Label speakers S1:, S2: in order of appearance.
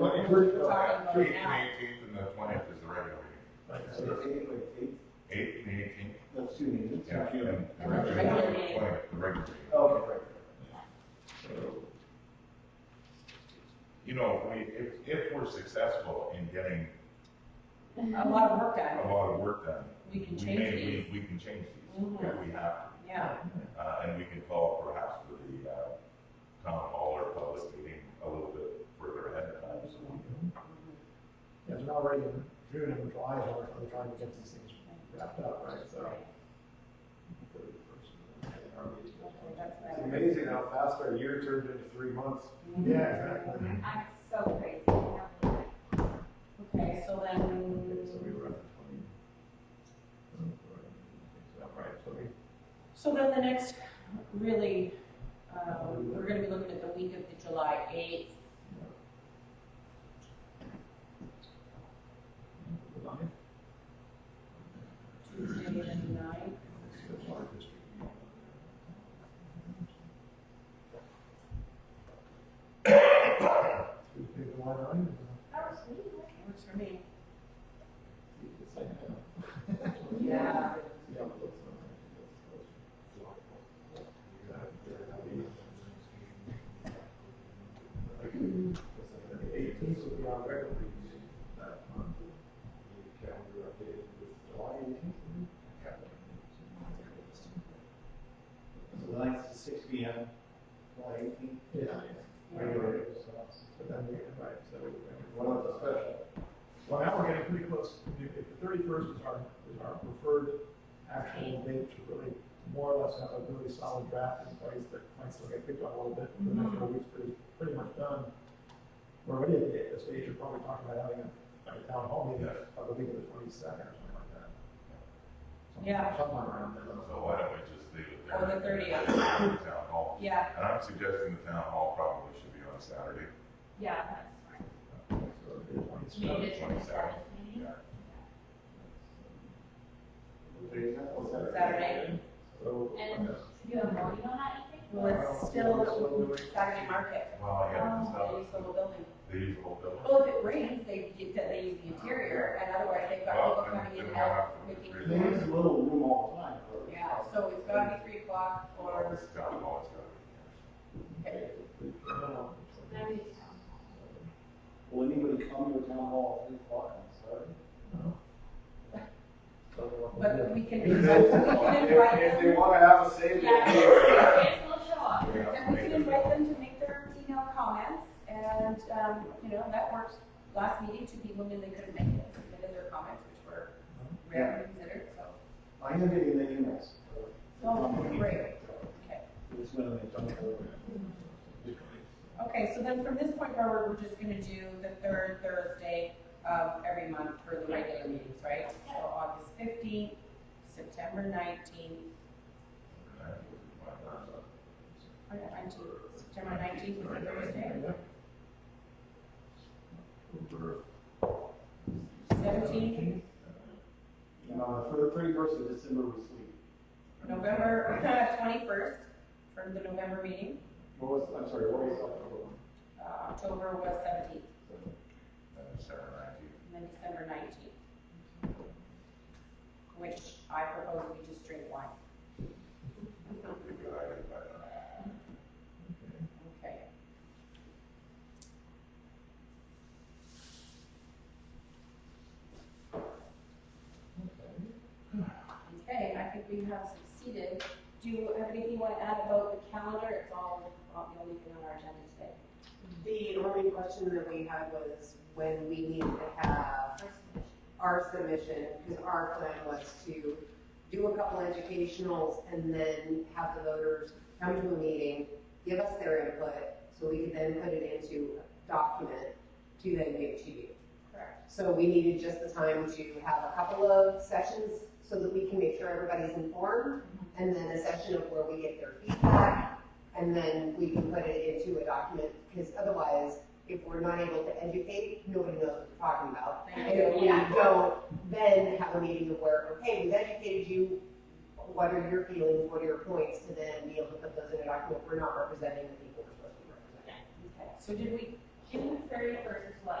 S1: What,
S2: We're
S1: you-
S2: talking
S3: May
S2: about it now.
S3: eighteenth and the twentieth is the regular meeting.
S1: Like,
S4: So
S1: so
S4: it's eight, like, eight,
S3: Eighth and eighteenth,
S4: that's two meetings.
S3: yeah, and and then
S2: Regular
S3: the
S2: meeting.
S3: 20th, the regular meeting.
S4: Okay, right.
S3: You know, if we, if, if we're successful in getting
S2: A lot of work on it.
S3: a lot of work done,
S2: We can
S3: we may,
S2: change these.
S3: we, we can change these,
S2: Mhm.
S3: if we have,
S2: Yeah,
S3: to. uh, and we can call perhaps for the, uh, town hall or public meeting a little bit further ahead of time, so we can
S1: It's already in June and July, so we're still trying to get these things wrapped up, right, so.
S2: that's
S4: It's
S2: better.
S4: amazing how fast our year turned into three months.
S1: Yeah, exactly.
S5: I'm so crazy. I can't believe it.
S2: Okay, so
S1: Okay, So we
S2: then,
S1: were at the twenty. Is that right? So we-
S2: so then the next, really, um, we're gonna be looking at the week of the July eighth.
S1: the ninth,
S2: Tuesday the ninth.
S1: it's the July district meeting. Tuesday, July ninth.
S5: That was me. wasn't it?
S2: Works for me.
S1: It's like,
S2: Yeah.
S1: Yeah, it looks all right. The eighteenth will be our regular meeting that month. The calendar updated with July eighteenth.
S4: So nine to six P M, July eighteenth,
S1: Yeah. Regular, so, but then we, right, so.
S4: one of the special.
S1: Well, now we're getting pretty close, if the thirty-first is our, is our preferred actual date to really more or less have a really solid draft in place that might still get picked on a little bit, for the next four weeks, pretty, pretty much done. We're already at the, at the stage, you're probably talking about having a, like a town hall meeting,
S3: Yeah.
S1: of the week of the twenty-second or something like that. Something-
S2: Yeah.
S1: Something around there.
S3: So why don't we just leave it there?
S2: Or the 30th.
S3: Town hall.
S2: Yeah,
S3: And I'm suggesting the town hall probably should be on Saturday,
S5: Yeah, that's smart.
S1: So it'll be the 22nd.
S5: Made it to the
S3: 27th.
S5: seventh
S2: Mm-hmm.
S5: meeting.
S3: yeah.
S2: Saturday.
S1: So.
S5: And you have voting on that, you think?
S2: Well, it's still Saturday market.
S3: Well, yeah,
S2: Um,
S3: it's
S2: They
S3: not,
S2: use the whole building.
S3: they use the whole building.
S2: Well, if it rains, they get, that they use the interior, and otherwise they've got people coming in and out, making.
S4: They use a little room all the time. for-
S2: Yeah, so it's gotta be three o'clock
S3: Well,
S2: or,
S3: it's town hall, it's gotta
S4: No,
S5: That is town.
S4: no. Will anybody come to a town hall at three o'clock on Saturday?
S2: but we can, we
S4: If
S2: can invite
S4: if they
S2: them.
S4: wanna have a say, they
S5: Yeah,
S4: can.
S5: kids will show up.
S3: be.
S2: And we can invite them to make their email comments, and, um, you know, that worked last meeting, two people knew they couldn't make it, submitted their comments, which were rarely considered, so.
S4: I am getting the emails.
S2: So, great, okay.
S4: It's when they don't go.
S2: Okay, so then from this point forward, we're just gonna do the third Thursday of every month for the regular meetings, right? So August fifteenth, September nineteenth, September nineteenth is a Thursday, seventeenth,
S4: And on the thir- thirty-first of December, we sleep.
S2: November uh, twenty-first for the November meeting.
S4: What was, I'm sorry, what was October one?
S2: Uh, October was seventeenth,
S3: December nineteenth.
S2: and then December nineteenth. Which I propose we just drink wine.
S3: That'd be a good idea, but,
S2: Okay. Okay, I think we have succeeded. Do you have anything you want to add about the calendar? It's all, not the only thing on our agenda today.
S6: The only question that we had was when we needed to have our submission, because our plan was to do a couple educationals and then have the voters come to a meeting, give us their input, so we could then put it into a document to then give to you.
S2: Correct.
S6: So we needed just the time to have a couple of sessions so that we can make sure everybody's informed, and then a session of where we get their feedback, and then we can put it into a document, because otherwise, if we're not able to educate, nobody knows what we're talking about. And if we
S5: Yeah.
S6: don't, then have a meeting of where, okay, we've educated you, what are your feelings, what are your points, to then be able to put those in a document, we're not representing the people we're supposed to be representing.
S2: Okay, so did we,
S5: June thirty-first is what